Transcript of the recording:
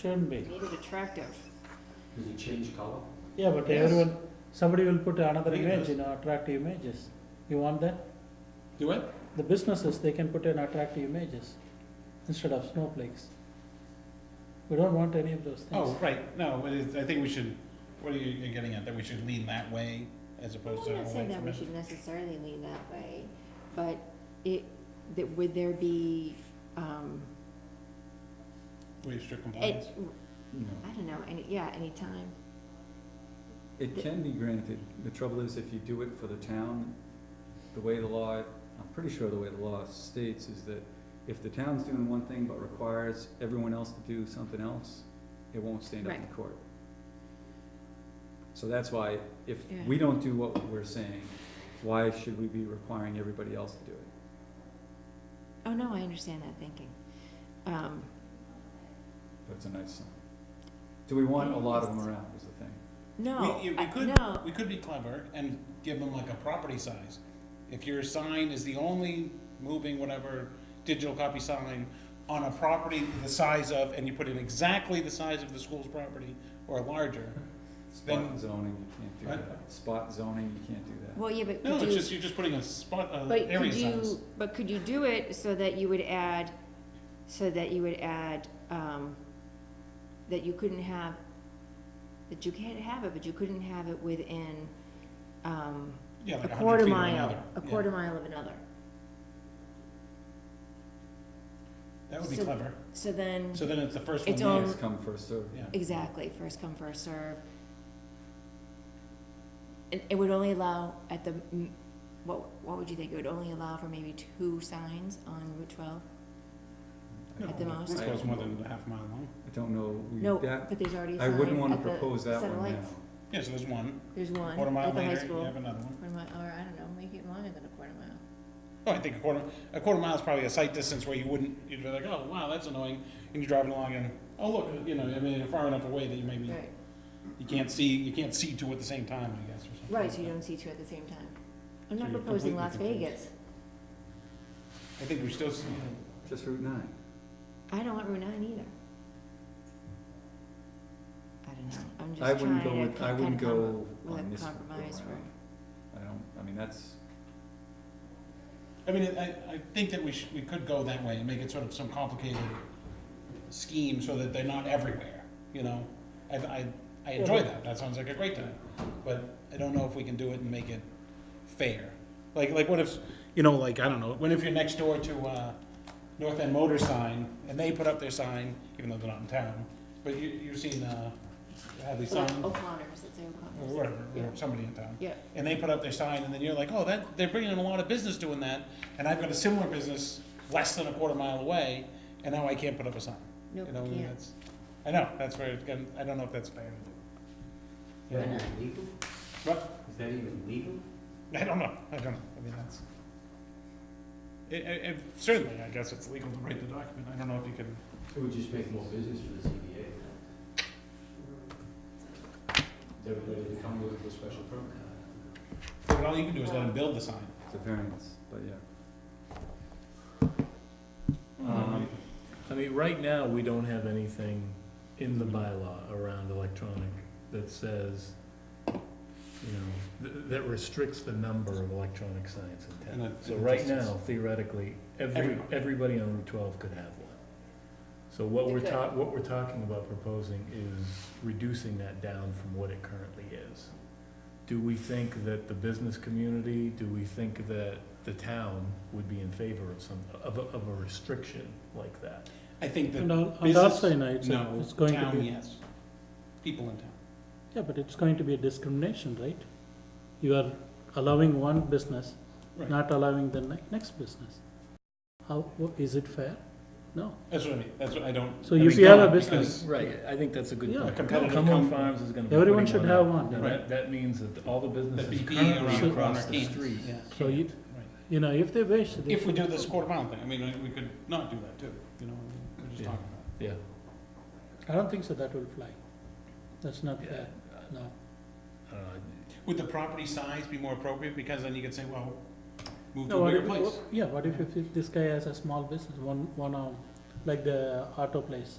Shouldn't be. made it attractive. Does it change color? Yeah, but Yes. everyone, somebody will put another Yeah, image, yes. you know, attractive images. You want that? You what? The businesses, they can put in attractive images instead of snowflakes. We don't want any of those Oh, things. right, no, but it's, I think we should, what are you you're getting at, that we should lean that way as opposed to I'm not away saying that from we it? should necessarily lean that way, but it, that would there be, um, Waive strict compliance? it, No. I don't know, any, yeah, anytime. It can be granted. The trouble is if you do it for the town, the way the law, I'm pretty sure the way the law states is that if the town's doing one thing but requires everyone else to do something else, it won't stand up in court. So that's why if Yeah. we don't do what we're saying, why should we be requiring everybody else to do it? Oh, no, I understand that thinking. Um, That's a nice sign. Do we want a lot of them around is the thing. no, We, you- we I- could, no, we could be clever and give them like a property size. If your sign is the only moving whatever digital copy sign on a property the size of, and you put in exactly the size of the school's property or larger, Then- Spot zoning, you can't do Right. that. Spot zoning, you can't do that. well, yeah, but no, could it's you, just, you're just putting a spot, uh, but area could size. you, but could you do it so that you would add, so that you would add, um, that you couldn't have, that you can't have it, but you couldn't have it within, um, a Yeah, like hundred quarter feet of mile, another. a Yeah. quarter mile of another. That would be so- clever. So then, So then it's the first one It's there. own- Next come first served. Yeah. exactly, first come, first serve. And it would only allow at the, m- what, what would you think, it would only allow for maybe two signs on Route twelve? No, At the it most. goes more than a half mile long. I don't know, we, No, that, but there's already a I sign wouldn't wanna at the propose that Center one now. Lights. Yeah, so there's one. There's one Quarter mile at the high later, you school, have another one. quarter mile, or I don't know, make it longer than a quarter mile. Oh, I think a quarter, a quarter mile is probably a sight distance where you wouldn't, you'd be like, oh, wow, that's annoying. And you're driving along and, oh, look, you know, I mean, you're far enough away that you maybe, Right, you can't see, you can't see two at the same time, I guess, or something. right, like so you that. don't see two at the same time. I'm So not you're proposing completely Las confused. Vegas, I think we're still, s- just Route nine. I don't want Route nine either. I don't know, I'm I just wouldn't go trying to with, I kind wouldn't of come up go with on a this one. compromise go for. around. I don't, I mean, that's, I mean, I, I think that we should, we could go that way and make it sort of some complicated scheme so that they're not everywhere, you know? I, I, I enjoy that, that sounds like a great time, but I don't know if we can do it and make it fair. Like, like what if, you know, like, I don't know, what if you're next door to, uh, North End Motor Sign, and they put up their sign, even though they're not in town, but you, you've seen, uh, Hadley Well, sign, or O'Connor's, it's O'Connor's. whatever, Oh, Yeah. or somebody in town Yeah, and they put up their sign, and then you're like, oh, that, they're bringing in a lot of business doing that, and I've got a similar business less than a quarter mile away, and now I can't put up a sign. nope, You know, and can't. that's, I know, that's where, it can- I don't know if that's fair. Is that Yeah. even legal? But, Is that even legal? I don't know, I don't know, I mean, that's, it, it, it- certainly, I guess it's legal to write the document, I don't know if you can, It would just make more business for the ZBA. Everybody to come with a special permit. but all you can do is let them build the sign. it's a variance, but yeah. Um, I mean, right now, we don't have anything in the bylaw around electronic that says, you know, th- that restricts the number of electronic signs in And town. the- So and the right distance. now, theoretically, every, Everybody. everybody on Route twelve could have one. So what They we're could. ta- what we're talking about proposing is reducing that down from what it currently is. Do we think that the business community, do we think that the town would be in favor of some, of a, of a restriction like that? I think And that, on, on that business- side, it's, no, it's going to town, be, yes, people in town. yeah, but it's going to be a discrimination, right? You are allowing one business, Right. not allowing the ne- next business. How, wha- is it fair? No. That's what I mean, that's what I don't. So I if mean, you have a no, business- because- Right, I think that's a good Yeah. point. Competitive Come on com- Farms is gonna be Everyone putting should one have up. one, you And know. Right. That, that means that all the The businesses BPA around currently the corner across the can't, street. yeah. So you, Right. you know, if they wish, they. If we do this quarter mile thing, I mean, we could not do that too, you know, we're just Yeah. talking about. I Yeah. don't think so, that will fly. That's not Yeah. fair, no. I don't know. it. Would the property size be more appropriate, because then you could say, well, move No, to a what bigger if, place? yeah, what if, if this guy has a small business, one, one, um, like the auto place,